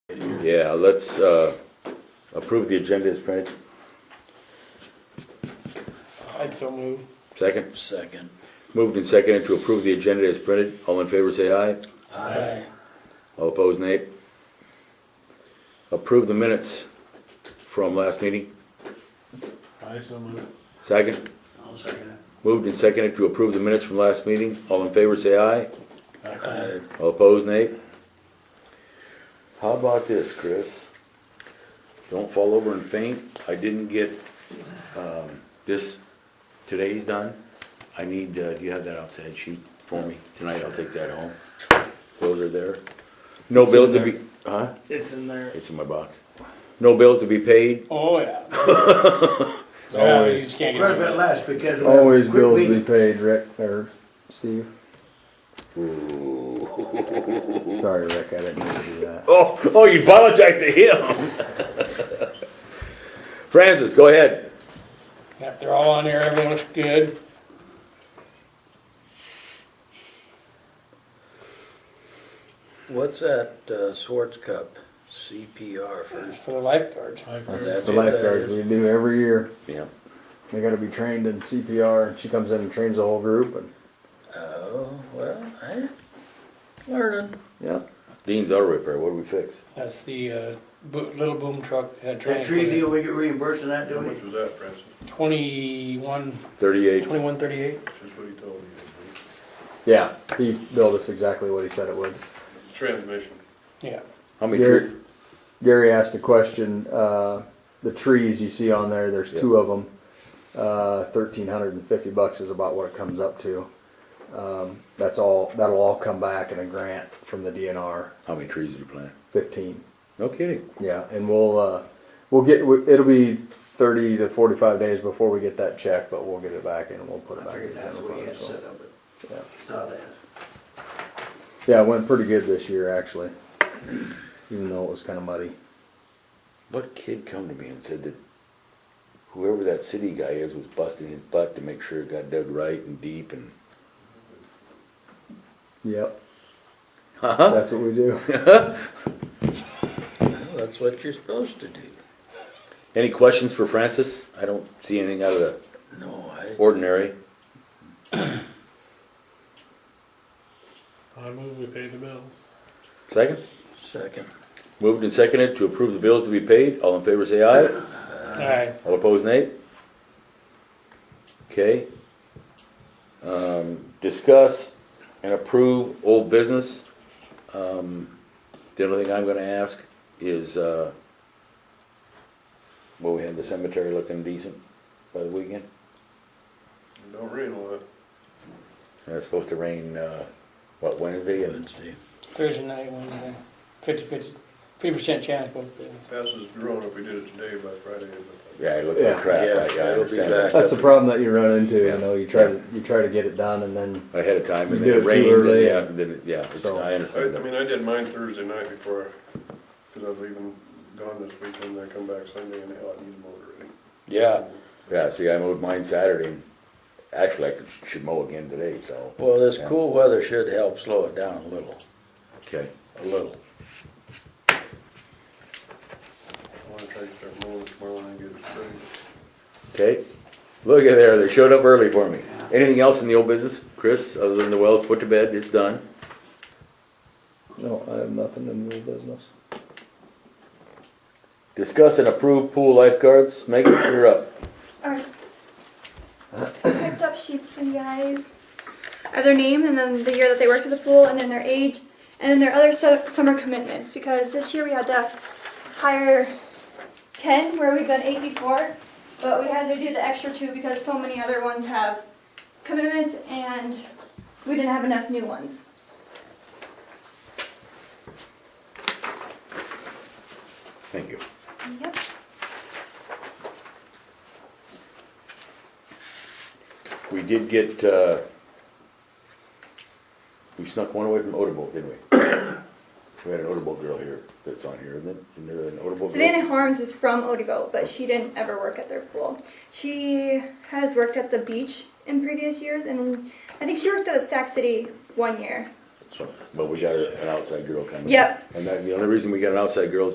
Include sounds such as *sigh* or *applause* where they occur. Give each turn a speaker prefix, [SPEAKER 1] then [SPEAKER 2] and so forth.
[SPEAKER 1] Yeah, let's uh, approve the agenda as printed.
[SPEAKER 2] I'd so move.
[SPEAKER 1] Second,
[SPEAKER 3] Second.
[SPEAKER 1] moved and seconded to approve the agenda as printed. All in favor, say aye.
[SPEAKER 3] Aye.
[SPEAKER 1] All opposed, nay. Approve the minutes from last meeting.
[SPEAKER 2] I so move.
[SPEAKER 1] Second,
[SPEAKER 3] I'll second
[SPEAKER 1] moved and seconded to approve the minutes from last meeting. All in favor, say aye.
[SPEAKER 3] it. Aye.
[SPEAKER 1] All opposed, nay. How about this, Chris? Don't fall over and faint. I didn't get um, this, today's done. I need, uh, do you have that outside sheet for me? Tonight I'll take that home. Those are there. No
[SPEAKER 2] It's in
[SPEAKER 1] bills to
[SPEAKER 2] there.
[SPEAKER 1] be, huh?
[SPEAKER 2] It's in there.
[SPEAKER 1] It's in my box. No bills to be paid.
[SPEAKER 2] Oh, yeah. Yeah, you
[SPEAKER 4] Always.
[SPEAKER 2] just can't get
[SPEAKER 3] Quite a
[SPEAKER 2] rid
[SPEAKER 3] bit
[SPEAKER 2] of it.
[SPEAKER 3] less because. we have a
[SPEAKER 4] Always
[SPEAKER 3] quick
[SPEAKER 4] bills to be
[SPEAKER 3] meeting.
[SPEAKER 4] paid, Rick, or Steve. Sorry, Rick, I didn't mean to do that.
[SPEAKER 1] Oh, oh, you apologize to *laughs* him. Francis, go ahead.
[SPEAKER 2] Yep, they're all on here, everyone's good.
[SPEAKER 3] What's that uh, Swartz Cup CPR for?
[SPEAKER 2] For the lifeguards.
[SPEAKER 4] That's
[SPEAKER 3] That's
[SPEAKER 4] the
[SPEAKER 3] what that
[SPEAKER 4] lifeguards
[SPEAKER 3] is.
[SPEAKER 4] we do every year.
[SPEAKER 1] Yeah.
[SPEAKER 4] They gotta be trained in CPR, and she comes in and trains the whole group, and,
[SPEAKER 3] Oh, well, hey, learning.
[SPEAKER 4] yeah.
[SPEAKER 1] Dean's auto repair, what do we fix?
[SPEAKER 2] That's the, uh, bo- little boom truck that had
[SPEAKER 3] That
[SPEAKER 2] training.
[SPEAKER 3] tree
[SPEAKER 2] for
[SPEAKER 3] deal, we get reimbursed on that, do
[SPEAKER 5] How
[SPEAKER 3] we?
[SPEAKER 5] much was that, Francis?
[SPEAKER 2] it. Twenty-one,
[SPEAKER 1] Thirty-eight.
[SPEAKER 2] twenty-one thirty-eight.
[SPEAKER 5] Just what he told you.
[SPEAKER 4] Yeah, he billed us exactly what he said it would.
[SPEAKER 5] Transmission.
[SPEAKER 2] Yeah,
[SPEAKER 1] How many?
[SPEAKER 4] Gary, Gary asked a question, uh, the trees you see on there, there's two of them. Uh, thirteen hundred and fifty bucks is about what it comes up to. Um, that's all, that'll all come back in a grant from the DNR,
[SPEAKER 1] How many trees did you plant?
[SPEAKER 4] fifteen.
[SPEAKER 1] No kidding.
[SPEAKER 4] Yeah, and we'll, uh, we'll get, it'll be thirty to forty-five days before we get that check, but we'll get it back and we'll put it
[SPEAKER 3] I
[SPEAKER 4] back. in
[SPEAKER 3] figured
[SPEAKER 4] the
[SPEAKER 3] that's
[SPEAKER 4] general
[SPEAKER 3] what he had
[SPEAKER 4] fund, so,
[SPEAKER 3] set up, but saw
[SPEAKER 4] yeah.
[SPEAKER 3] that.
[SPEAKER 4] Yeah, it went pretty good this year, actually, even though it was kinda muddy.
[SPEAKER 1] What kid come to me and said that whoever that city guy is was busting his butt to make sure it got dug right and deep *laughs* and.
[SPEAKER 4] Yep,
[SPEAKER 1] Uh-huh.
[SPEAKER 4] that's what we do.
[SPEAKER 3] Well, That's what you're supposed to do.
[SPEAKER 1] Any questions for Francis? I don't see anything out of the
[SPEAKER 3] No, I,
[SPEAKER 1] ordinary.
[SPEAKER 5] I move we pay the bills.
[SPEAKER 1] Second?
[SPEAKER 3] second.
[SPEAKER 1] Moved and seconded to approve the bills to be paid. All in favor say aye.
[SPEAKER 2] alright,
[SPEAKER 1] All opposed nay. Okay. Um, discuss and approve old business. Um, the only thing I'm gonna ask is, uh, well, we had the cemetery looking decent by the weekend.
[SPEAKER 5] Don't rain on that.
[SPEAKER 1] And it's supposed to rain, uh, what, Wednesday? And
[SPEAKER 3] Wednesday.
[SPEAKER 2] Thursday night, Wednesday, fifty, fifty, fifty percent chance both days.
[SPEAKER 5] Passes drone if we did it today by Friday, but
[SPEAKER 1] Yeah, it looked like
[SPEAKER 4] Yeah.
[SPEAKER 1] crap.
[SPEAKER 3] Yeah,
[SPEAKER 1] I- I
[SPEAKER 3] it'll be
[SPEAKER 1] understand
[SPEAKER 3] back.
[SPEAKER 1] that.
[SPEAKER 4] That's the problem that you run into,
[SPEAKER 1] Yeah.
[SPEAKER 4] you know, you try to, you try to get it done and then,
[SPEAKER 1] Ahead of time and
[SPEAKER 4] You
[SPEAKER 1] then it
[SPEAKER 4] do it too
[SPEAKER 1] rains and
[SPEAKER 4] early.
[SPEAKER 1] yeah, and then, it- yeah, it's-
[SPEAKER 4] So-
[SPEAKER 1] I understand
[SPEAKER 5] I, I
[SPEAKER 1] that.
[SPEAKER 5] mean, I did mine Thursday night before, cause I was leaving, gone this weekend, I come back Sunday and hell, I need to mow already.
[SPEAKER 3] Yeah.
[SPEAKER 1] Yeah, see, I mowed mine Saturday. Actually, I could- should mow again today, so.
[SPEAKER 3] Well, this cool weather should help slow it down a little,
[SPEAKER 1] Okay.
[SPEAKER 3] a little.
[SPEAKER 5] I wanna try to start mowing tomorrow and get it ready.
[SPEAKER 1] Okay, look at there, they showed up early for me. Anything else in the old business, Chris, other than the wells put to bed, it's done?
[SPEAKER 4] no, oh, I have nothing in the business.
[SPEAKER 1] Discuss and approve pool lifeguards, make it clear up.
[SPEAKER 6] Alright. Picked up sheets for you guys of their name and then the year that they worked at the pool and then their age and then their other su- summer commitments because this year we had to hire 10 where we've done 8 before but we had to do the extra 2 because so many other ones have commitments and we didn't have enough new ones.
[SPEAKER 1] Thank you.
[SPEAKER 6] Yep.
[SPEAKER 1] We did get, uh, we snuck one away from Odebo, didn't *coughs* we? We had an Odebo girl here that's on here, isn't it? Isn't there an Odebo girl?
[SPEAKER 6] Savannah Harms is from Odebo, but she didn't ever work at their pool. She has worked at the beach in previous years, and I think she worked at Sac City one year.
[SPEAKER 1] But we got an outside girl coming.
[SPEAKER 6] Yep.
[SPEAKER 1] And that, the only reason we got an outside girl is